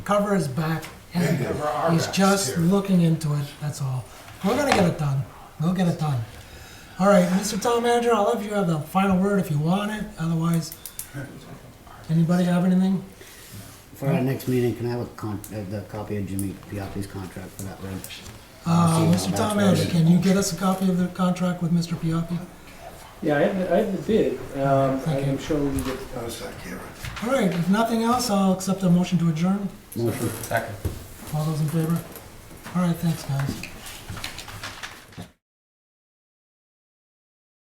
cover his back. and They cover our He's backs, just too. looking into it, that's all. We're gonna get it done. We'll get it done. All right, Mr. Town Manager, I'll let you have the final word if you want it, otherwise, anybody have anything? For our next meeting, can I have a con, uh, the copy of Jimmy Piatti's contract for that road? Uh, Mr. Town Manager, can you get us a copy of the contract with Mr. Piapi? Yeah, I have, the- I have the bid, um, I'm sure we get, That was that Kira. All right, if nothing else, I'll accept a motion to adjourn. Motion. All those in favor? All right, thanks, guys.